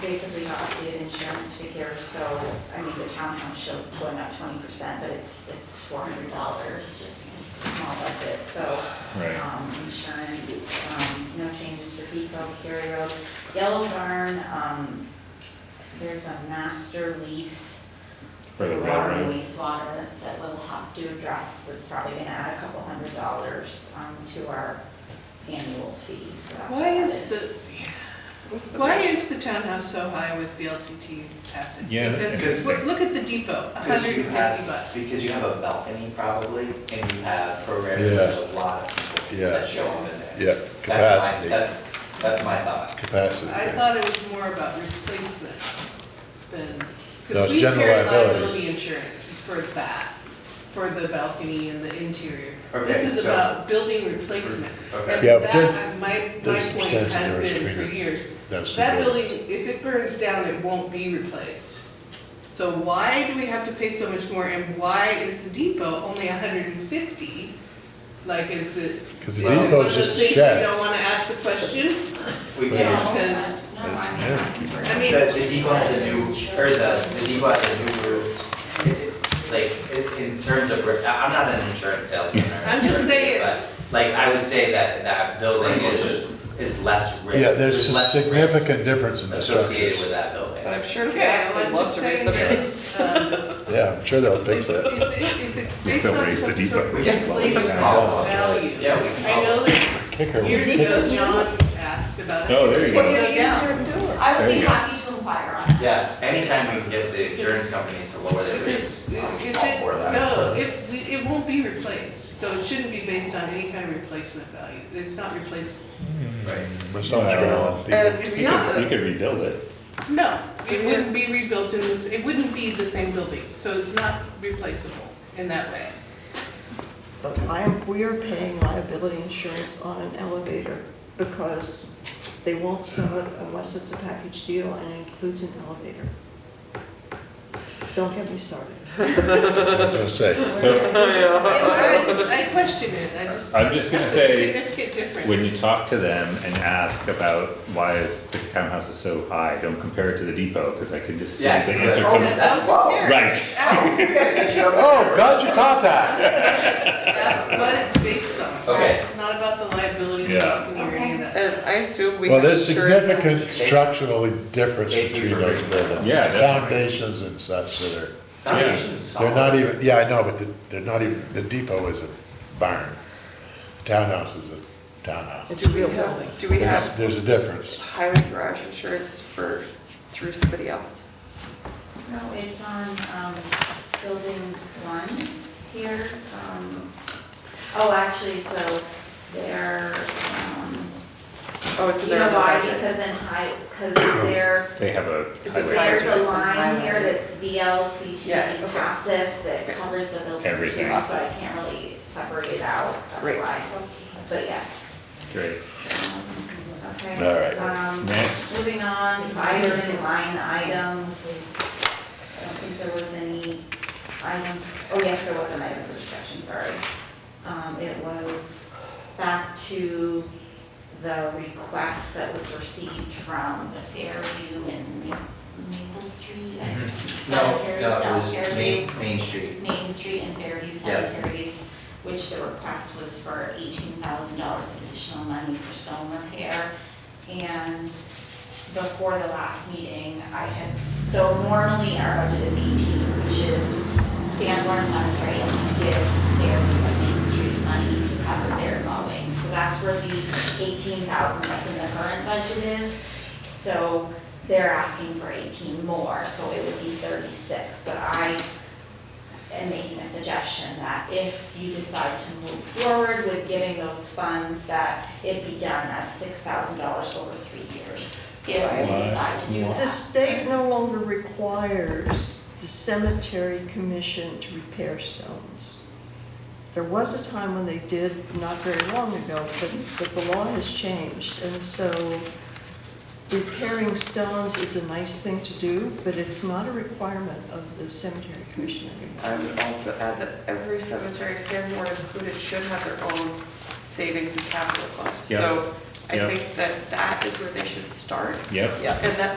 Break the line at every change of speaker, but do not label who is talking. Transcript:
basically our updated insurance figure, so, I mean, the townhouse shows it's going up twenty percent, but it's, it's four hundred dollars, just because it's a small budget, so.
Right.
Um, insurance, um, no changes for Peak Road, Cary Road, Yellow Barn, um, there's a master lease
For the
water and
railroad.
wastewater that we'll have to address, that's probably gonna add a couple hundred dollars, um, to our annual fee, so that's what
Why
that
is
is.
the, why is the townhouse so high with VLCT acid?
Yeah, that's
Because, look
interesting.
look at the depot, a
Because
hundred
you
and fifty
have-
bucks.
Because you have a balcony probably, and you have programming,
Yeah.
there's a lot of people
Yeah.
that show up in there.
Yeah,
That's my-
capacity.
That's, that's my thought.
Capacity.
I thought it was more about replacement than,
No,
because
it's
we
general
carry
liability.
liability insurance for that, for the balcony and the interior.
Okay,
This is
so-
about building replacement.
Okay.
And
Yeah, but there's-
that, my, my
there's
point
substantial
has
risk
been for
agreement.
years,
That's the
That
goal.
building, if it burns down, it won't be replaced. So why do we have to pay so much more and why is the depot only hundred and fifty? Like, is the.
'Cause
is it
the
one of
depot's just
those
a
things
shed.
You don't wanna ask the question?
We
No,
can,
Because-
no, I mean, I'm concerned.
I
the,
mean,
the depot has a new, or the, the depot has a new roof. It's, like, in, in terms of, re- I- I'm not an insurance salesman or.
I'm just
insurance,
saying.
but, Like, I would say that, that building is, is less risk.
Yeah, there's a
less risk
significant difference in the
Associated
structures.
with that building.
But I'm sure if you
Okay,
ask,
well,
they'd
I'm
love
just
to raise
saying
the
that,
rates.
it's, um,
Yeah, I'm sure they'll fix
it's, if
it.
it- if it's based
They'll
on
raise the
some
depot.
sort of
We can- we
replacement
can follow up.
value.
Yeah, we can
I know that
Kicker.
years ago, John asked about it.
Oh, there you go.
I would
There
be
you go.
happy to inquire on that.
Yeah, anytime we can get the insurance companies to lower their
If it's,
rates, I'm
if it,
all uh, for that.
no, it, we- it won't be replaced, so it shouldn't be based on any kind of replacement value, it's not replaceable.
Right.
My stomach's growling.
Uh,
It's
You
not,
could, you could rebuild it.
no, it wouldn't be rebuilt in this, it wouldn't be the same building, so it's not replaceable in that way.
But I, we are paying liability insurance on an elevator because they won't sell it unless it's a package deal and it includes an elevator. Don't get me started.
I was gonna say,
So
I just, I question it, I just.
I'm just gonna
that's a
say,
Significant difference.
when you talk to them and ask about why is the townhouse is so high, don't compare it to the depot, cause I can just see the
Yeah, 'cause they're
answer
like,
coming.
oh, that's low.
Here,
Right.
Ask,
oh, got your contact.
ask what it's based on,
Okay.
it's not about the liability,
Yeah.
not the any of that stuff.
And I assume we
Well,
have
there's
insurance.
significant structural difference
Thank you
between
for
those
bringing that up.
buildings.
Yeah, definitely.
Foundations and such that are,
Foundation's solid.
they're not even, yeah, I know, but the- they're not even, the depot is a barn. Townhouse is a townhouse.
It's a
Do
real
we
building.
have, do we
There's,
have
there's a difference.
highway garage insurance for, through somebody else?
No, it's on, um, buildings one here, um, oh, actually, so they're, um,
Oh, it's
you
in their
know
other
why,
budget.
because then high, because they're
They have a
Is it
highway.
fire?
There's a
Firefighters
line
and
here
fire.
that's
Yeah,
VLCT
okay.
E passive that
Okay.
covers the building
Everything.
here, so I can't really separate it out, that's
Great.
why. But yes.
Great,
Um, Okay.
All right.
Um,
next,
Moving on, fire and line items. I don't think there was any items, oh yes, there was an item for discussion, sorry. Um, it was back to the request that was received from the Fairview and Ma- Maple Street, I think,
No,
cemeteries
Mm-hmm. no, it
down
was
Fairview.
Main, Main Street.
Main Street and Fairview Cemeteries, which the request was for eighteen thousand dollars of additional money for stone repair. And before the last meeting, I had, so normally our budget is eighteen, which is Sanborn Cemetery and we give Fairview and Main Street money to cover their mowing. So that's where the eighteen thousand that's in the current budget is. So they're asking for eighteen more, so it would be thirty-six, but I and making a suggestion that if you decide to move forward with giving those funds, that it be done as six thousand dollars over three years, if you
Why?
decide to do that.
The state no longer requires the cemetery commission to repair stones. There was a time when they did, not very long ago, but, but the law has changed. And so repairing stones is a nice thing to do, but it's not a requirement of the cemetery commission anymore.
I would also add that every cemetery, Sanborn included, should have their own savings and capital fund.
Yeah.
So I
Yeah.
think that that is where they should start.
yep.
Yeah.
And that